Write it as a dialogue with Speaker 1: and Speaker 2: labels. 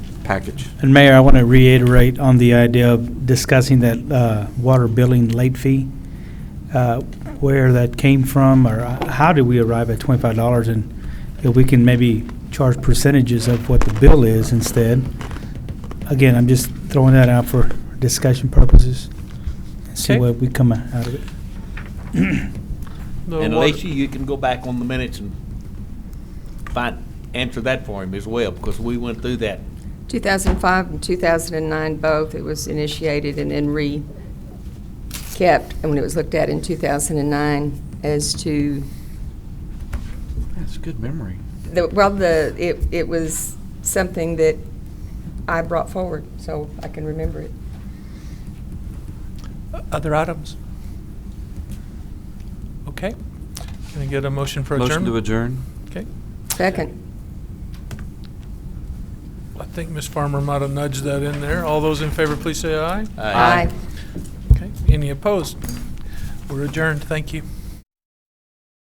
Speaker 1: package.
Speaker 2: And Mayor, I want to reiterate on the idea of discussing that uh, water billing late fee, uh, where that came from, or uh, how did we arrive at twenty-five dollars? And if we can maybe charge percentages of what the bill is instead. Again, I'm just throwing that out for discussion purposes. and See
Speaker 3: Okay.
Speaker 2: what we come out of it.
Speaker 3: The
Speaker 4: And
Speaker 3: water-
Speaker 4: Lacy, you can go back on the minutes and find, answer that for him as well, because we went through that.
Speaker 5: 2005 and 2009 both, it was initiated and then re-kept, and when it was looked at in 2009 as to,
Speaker 1: That's a good memory.
Speaker 5: the well, the, it it was something that I brought forward, so I can remember it.
Speaker 3: Other items? Okay. Can I get a motion for
Speaker 1: Motion to
Speaker 3: adjournment?
Speaker 1: adjourn?
Speaker 3: Okay.
Speaker 5: Second.
Speaker 3: I think Ms. Farmer might have nudged that in there. All those in favor, please say aye.
Speaker 4: Uh,
Speaker 3: Okay. Any opposed? We're adjourned. Thank you.